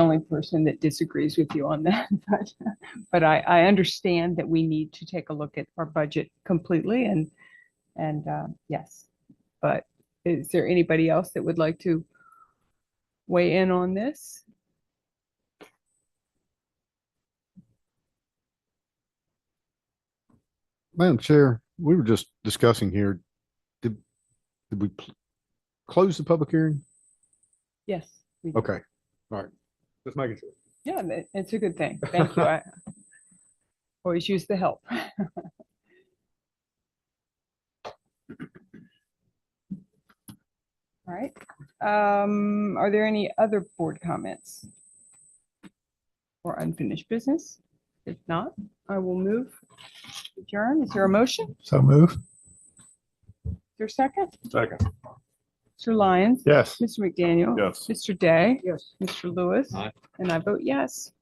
only person that disagrees with you on that, but, but I, I understand that we need to take a look at our budget completely and, and, uh, yes. But is there anybody else that would like to weigh in on this? Madam Chair, we were just discussing here. Did, did we pl- close the public hearing? Yes. we- Okay, all right. Just making sure. Yeah, tha- it's a good thing. Thank you. I Always use the help. All right. Um, are there any other board comments? Or unfinished business? If not, I will move. Adjourn. Is there a motion? So move. Is there a second? Second. Mr. Lyons? Yes. Mr. McDaniel? Yes. Mr. Day? Yes. Mr. Lewis? Aye. And I vote yes.